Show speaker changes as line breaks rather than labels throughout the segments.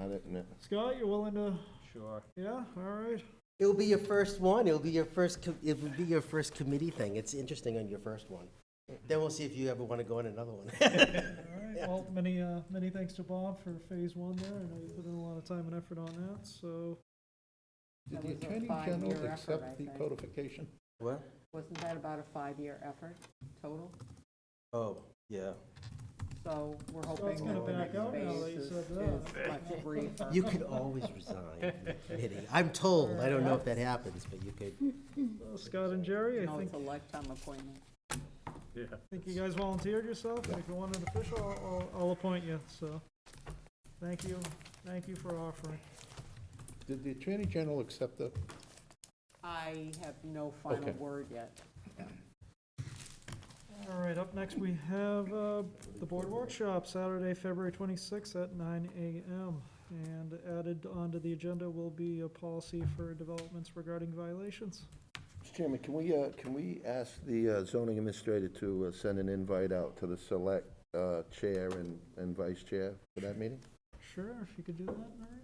on it, and
Scott, you're willing to,
Sure.
yeah, all right.
It'll be your first one. It'll be your first. Com- it will be your first committee thing. It's interesting on your first one. Then we'll see if you ever want to go on another one.
All right, well, many, uh, many thanks to Bob for phase one there. I know you put in a lot of time and effort on that, so.
Did
That
the
was a
Attorney
five-year
General
effort, I
accept the
think.
codification?
what?
Wasn't that about a five-year effort total?
Oh, yeah.
So we're
So it's
hoping
gonna
that the
back
next
out now that
phase
you
is
said
is much briefer.
You could always resign from the committee. I'm told. I don't know if that happens, but you could.
Uh, Scott and Jerry, I
No,
think,
it's a lifetime appointment.
Yeah.
think you guys volunteered yourself, and if you want an official, I'll, I'll- I'll appoint you, so. Thank you, thank you for offering.
Did the Attorney General accept the,
I have no final
Okay.
word yet.
All right, up next, we have uh, the board workshop, Saturday, February 26th at 9 a.m. And added onto the agenda will be a policy for developments regarding violations.
Mr. Chairman, can we, uh, can we ask the uh, zoning administrator to uh, send an invite out to the select uh, chair and, and vice chair for that meeting?
Sure, if you could do that, Mary?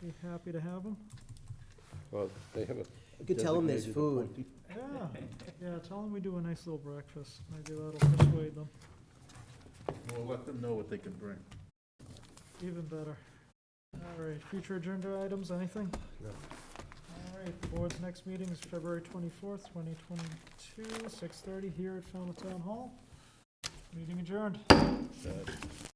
Be happy to have them.
well, they have a.
You could tell them there's
designated
food.
appointee.
Yeah, yeah, tell them we do a nice little breakfast. Maybe that'll persuade them
We'll let them know what they can bring.
even better. All right, future agenda items, anything?
No.
All right, the board's next meeting is February twenty-fourth, twenty twenty-two, six thirty here at Falmouth Town Hall. Meeting adjourned.
Uh,